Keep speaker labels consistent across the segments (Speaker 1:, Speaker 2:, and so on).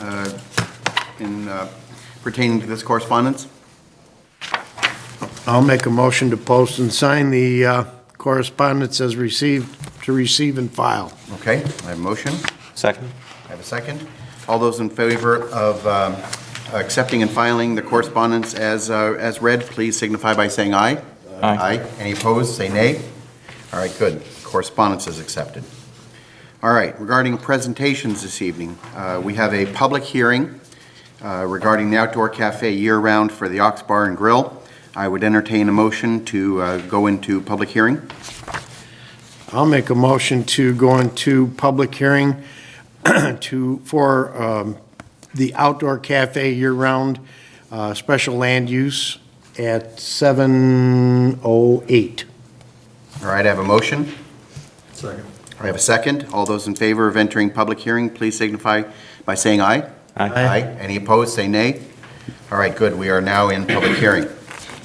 Speaker 1: uh, in uh, pertaining to this correspondence?
Speaker 2: I'll make a motion to post and sign the uh, correspondence as received, to receive and file.
Speaker 1: Okay, I have a motion.
Speaker 3: Second?
Speaker 1: I have a second. All those in favor of um, accepting and filing the correspondence as, uh, as read, please signify by saying aye.
Speaker 3: Aye.
Speaker 1: Any opposed, say nay. All right, good. Correspondence is accepted. All right, regarding presentations this evening, uh, we have a public hearing uh, regarding the outdoor cafe year-round for the Ox Bar and Grill. I would entertain a motion to uh, go into public hearing.
Speaker 2: I'll make a motion to go into public hearing to, for um, the outdoor cafe year-round uh, special land use at 7:08.
Speaker 1: All right, I have a motion.
Speaker 4: Second.
Speaker 1: I have a second. All those in favor of entering public hearing, please signify by saying aye.
Speaker 3: Aye.
Speaker 1: Any opposed, say nay. All right, good, we are now in public hearing.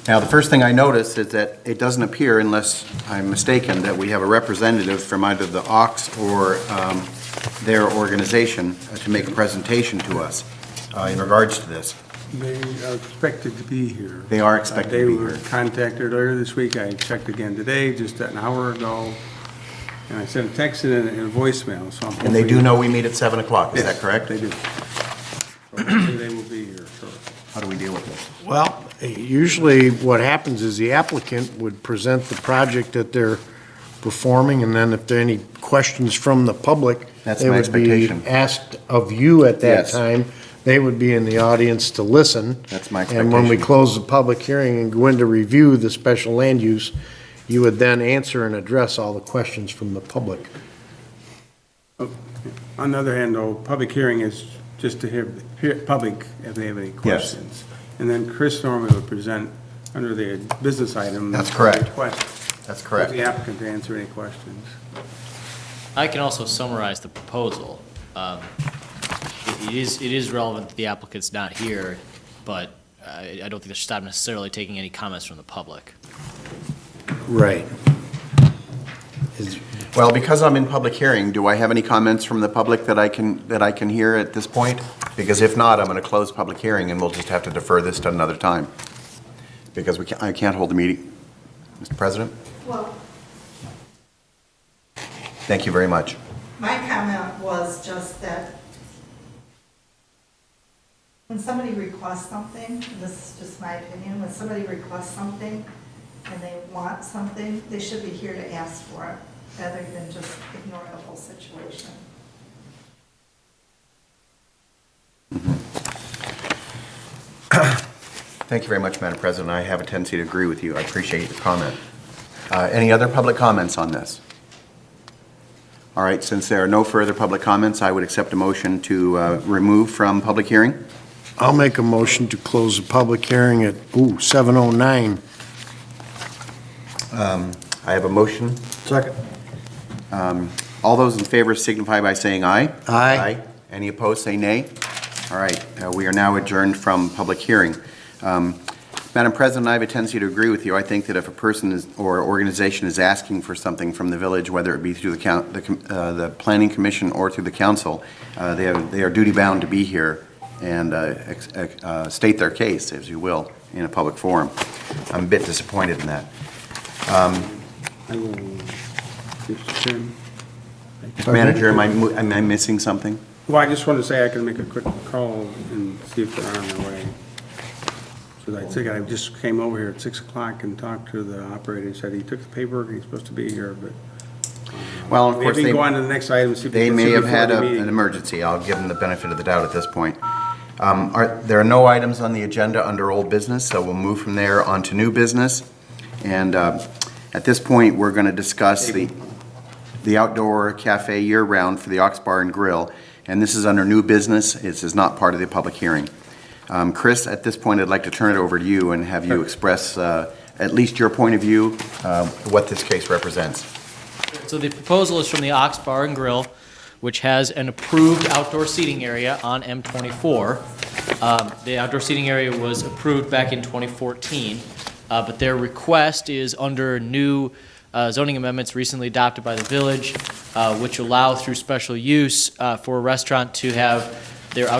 Speaker 1: Now, the first thing I notice is that it doesn't appear, unless I'm mistaken, that we have a representative from either the Ox or um, their organization uh, to make a presentation to us uh, in regards to this.
Speaker 4: They are expected to be here.
Speaker 1: They are expected to
Speaker 4: They
Speaker 1: be
Speaker 4: were
Speaker 1: here.
Speaker 4: contacted earlier this week. I checked again today, just an hour ago. And I sent a text and a and a voicemail, so I'm hoping.
Speaker 1: And they do know we meet at 7 o'clock, is that
Speaker 4: Yes,
Speaker 1: correct?
Speaker 4: They do. So hopefully they will be here, so.
Speaker 1: How do we deal with this?
Speaker 2: Well, usually what happens is the applicant would present the project that they're performing, and then if there are any questions from the public,
Speaker 1: That's
Speaker 2: they
Speaker 1: my
Speaker 2: would be
Speaker 1: expectation.
Speaker 2: asked of you at that
Speaker 1: Yes.
Speaker 2: time. They would be in the audience to listen.
Speaker 1: That's my
Speaker 2: And when we
Speaker 1: expectation.
Speaker 2: close the public hearing and go in to review the special land use, you would then answer and address all the questions from the public.
Speaker 4: On the other hand, though, public hearing is just to hear, hear public if they have any questions. And then Chris normally would present under the business item.
Speaker 1: That's correct.
Speaker 4: Request.
Speaker 1: That's correct.
Speaker 4: The applicant to answer any questions.
Speaker 5: I can also summarize the proposal. Um, It it is, it is relevant that the applicant's not here, but I I don't think that should stop necessarily taking any comments from the public.
Speaker 2: Right.
Speaker 1: Well, because I'm in public hearing, do I have any comments from the public that I can, that I can hear at this point? Because if not, I'm going to close public hearing, and we'll just have to defer this to another time, because we can't, I can't hold the meeting. Mr. President?
Speaker 6: Well,
Speaker 1: Thank you very much.
Speaker 6: my comment was just that when somebody requests something, and this is just my opinion, when somebody requests something and they want something, they should be here to ask for it, rather than just ignore the whole situation.
Speaker 1: Thank you very much, Madam President. I have a tendency to agree with you. I appreciate your comment. Uh, Any other public comments on this? All right, since there are no further public comments, I would accept a motion to uh, remove from public hearing.
Speaker 2: I'll make a motion to close the public hearing at, ooh, 7:09.
Speaker 1: I have a motion.
Speaker 2: Second.
Speaker 1: All those in favor signify by saying aye.
Speaker 2: Aye.
Speaker 1: Any opposed, say nay. All right, uh, we are now adjourned from public hearing. Um, Madam President, I have a tendency to agree with you. I think that if a person is, or organization is asking for something from the village, whether it be through the coun, the, com- uh, the planning commission or through the council, uh, they are, they are duty-bound to be here and uh, ex- ex- uh, state their case, as you will, in a public forum. I'm a bit disappointed in that.
Speaker 4: I will, Mr. Chairman.
Speaker 1: Manager, am I, mo- am I missing something?
Speaker 4: Well, I just wanted to say I can make a quick call and see if they're on their way. So I think I just came over here at 6 o'clock and talked to the operator, and said he took the paperwork, he's supposed to be here, but
Speaker 1: Well, of course,
Speaker 4: maybe
Speaker 1: they.
Speaker 4: go on to the next item, see if
Speaker 1: They
Speaker 4: can
Speaker 1: may
Speaker 4: see
Speaker 1: have
Speaker 4: before
Speaker 1: had
Speaker 4: the
Speaker 1: a-
Speaker 4: meeting.
Speaker 1: an emergency. I'll give them the benefit of the doubt at this point. Um, Are, there are no items on the agenda under old business, so we'll move from there on to new business. And uh, at this point, we're going to discuss the, the outdoor cafe year-round for the Ox Bar and Grill. And this is under new business. This is not part of the public hearing. Um, Chris, at this point, I'd like to turn it over to you and have you express uh, at least your point of view, uh, what this case represents.
Speaker 5: So the proposal is from the Ox Bar and Grill, which has an approved outdoor seating area on M24. Um, The outdoor seating area was approved back in 2014, uh, but their request is under new uh, zoning amendments recently adopted by the village, uh, which allow through special use uh, for a restaurant to have their outdoor